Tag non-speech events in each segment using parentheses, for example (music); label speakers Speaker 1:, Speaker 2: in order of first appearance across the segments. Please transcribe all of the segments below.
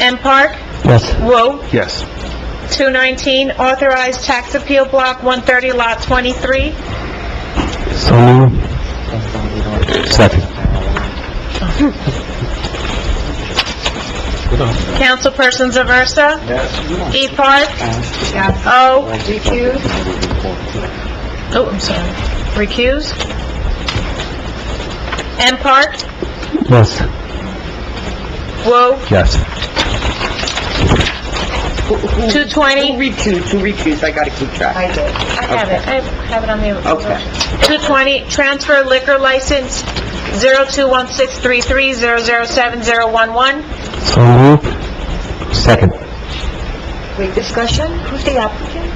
Speaker 1: M. Park,
Speaker 2: Yes.
Speaker 1: Woo,
Speaker 2: Yes.
Speaker 1: 219, authorized tax appeal block 130, lot 23.
Speaker 2: So moved. Second.
Speaker 1: Councilpersons Aversa? Yes. E. Park? Yes. O. Recused? Oh, I'm sorry. Recused? M. Park?
Speaker 2: Yes.
Speaker 1: Woo,
Speaker 2: Yes.
Speaker 1: 220.
Speaker 3: Recuse, to recuse, I gotta keep track. I did.
Speaker 1: Oh, I have it, I have it on the...
Speaker 3: Okay.
Speaker 1: 220, transfer liquor license 021633007011.
Speaker 2: So moved. Second.
Speaker 4: Wait, discussion? Who's the applicant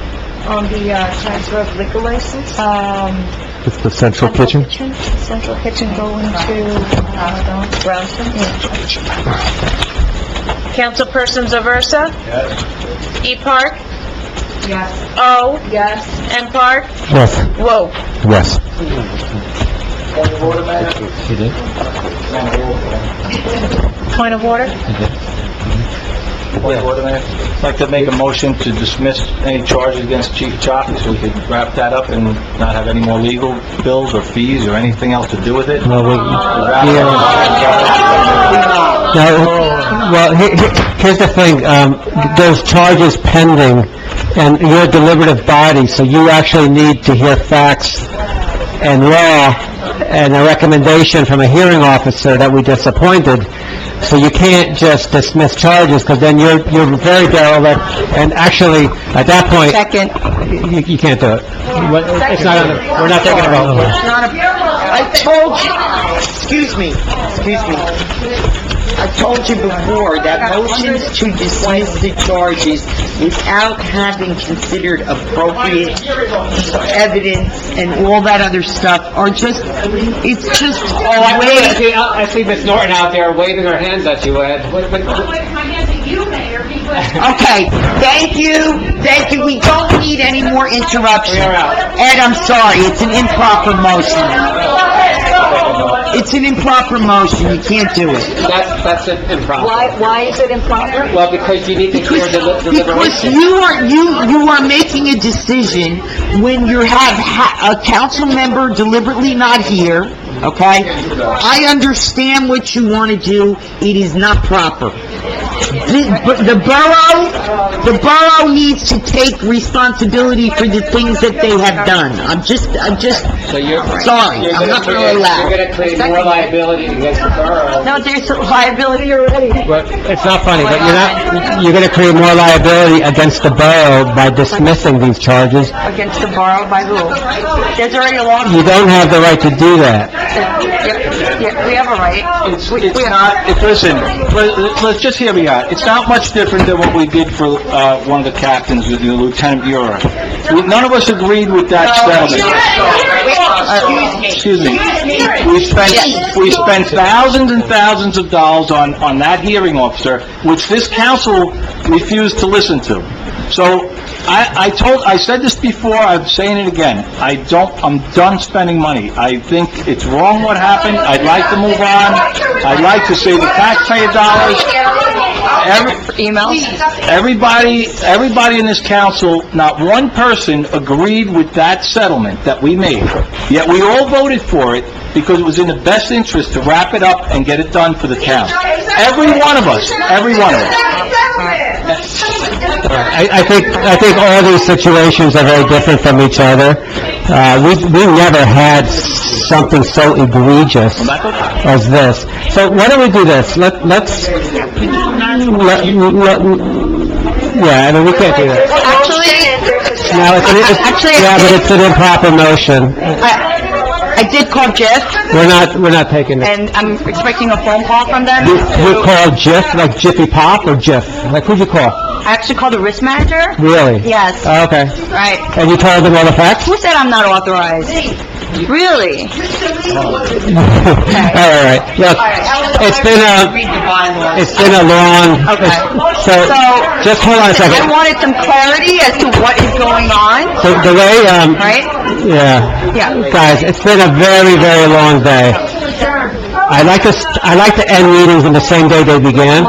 Speaker 4: on the uh, transfer of liquor license? Um...
Speaker 2: It's the central kitchen?
Speaker 4: Central Kitchen going uh, to Brownstone?
Speaker 1: Councilpersons Aversa? Yes. E. Park?
Speaker 4: Yes.
Speaker 1: O.
Speaker 4: Yes.
Speaker 1: M. Park?
Speaker 2: Yes.
Speaker 1: Whoa.
Speaker 2: Yes.
Speaker 1: Point of order?
Speaker 5: I'd like to make a motion to dismiss any charges against Chief Choppy so we could wrap that up and not have any more legal bills or fees or anything else to do with it.
Speaker 2: No, wait.
Speaker 5: Wrap it up.
Speaker 2: No, well, he- he- here's the thing, um, there's charges pending, and you're a deliberative body, so you actually need to hear facts and law and a recommendation from a hearing officer that we disappointed. So you can't just dismiss charges, because then you're, you're very derelict, and actually, at that point... Second. You, you can't do it. What- It's not, on the- we're not taking a vote.
Speaker 3: I told you, excuse me, excuse me. I told you before that motions to dismiss the charges without having considered appropriate evidence and all that other stuff are just, it's just
Speaker 6: Oh, I I
Speaker 3: a way.
Speaker 6: see, I see Miss Norton out there waving her hands at you, Ed. What- what- what-
Speaker 3: Okay, thank you, thank you, we don't need any more interruptions.
Speaker 6: We are out.
Speaker 3: Ed, I'm sorry, it's an improper motion. It's an improper motion, you can't do it.
Speaker 6: That's, that's an improper.
Speaker 4: Why, why is it improper?
Speaker 6: Well, because you need to hear the li-
Speaker 3: Because
Speaker 6: deliberation.
Speaker 3: you are, you, you are making a decision when you have ha- a council member deliberately not here, okay? I understand what you want to do, it is not proper. The but the borough, the borough needs to take responsibility for the things that they have done. I'm just, I'm just,
Speaker 6: So you're...
Speaker 3: Sorry,
Speaker 6: you're
Speaker 3: I'm not gonna
Speaker 6: create-
Speaker 3: allow.
Speaker 6: You're gonna create more liability against the borough.
Speaker 4: No, there's liability already.
Speaker 2: Well, It's not funny, but you're not, you're gonna create more liability against the borough by dismissing these charges.
Speaker 4: Against the borough by who? There's already a law.
Speaker 2: You don't have the right to do that.
Speaker 4: Yeah, yeah, we have a right.
Speaker 5: It's, it's not, it- listen, let- let's just hear me out. It's not much different than what we did for, uh, one of the captains with the Lieutenant Bureau. We- None of us agreed with that settlement. Uh, Excuse me. We spent, we spent thousands and thousands of dollars on, on that hearing officer, which this council refused to listen to. So, I, I told, I said this before, I'm saying it again, I don't, I'm done spending money. I think it's wrong what happened, I'd like to move on, I'd like to save the taxpayer dollars. Every,
Speaker 4: Emails?
Speaker 5: Everybody, everybody in this council, not one person agreed with that settlement that we made. Yet we all voted for it because it was in the best interest to wrap it up and get it done for the town. Every one of us, every one of us.
Speaker 2: I, I think, I think all these situations are very different from each other. Uh, we, we never had something so egregious as this. So why don't we do this? Let, let's, let, let, yeah, I mean, we can't do that.
Speaker 4: Actually,
Speaker 2: No, it's, it's, yeah, but it's an improper motion.
Speaker 3: I, I did call Jeff,
Speaker 2: We're not, we're not taking it.
Speaker 3: and I'm expecting a phone call from them.
Speaker 2: You you call Jif, like Jiffy Pop, or Jif? Like, who'd you call?
Speaker 3: I actually called the risk manager,
Speaker 2: Really?
Speaker 3: Yes.
Speaker 2: Oh, Okay.
Speaker 3: right?
Speaker 2: And you told them all the facts? (laughs)
Speaker 3: Who said I'm not authorized? Really?
Speaker 2: All right, all right. Look, it's been a,
Speaker 3: Read the bylaws.
Speaker 2: it's been a long... it's- So,
Speaker 3: So-
Speaker 2: just hold on a
Speaker 3: I
Speaker 2: second.
Speaker 3: wanted some clarity as to what is going on,
Speaker 2: The the way, um...
Speaker 3: right?
Speaker 2: Yeah.
Speaker 3: Yeah.
Speaker 2: Guys, it's been a very, Oh, very long day. I like to, st- I like to end meetings on the same day they began.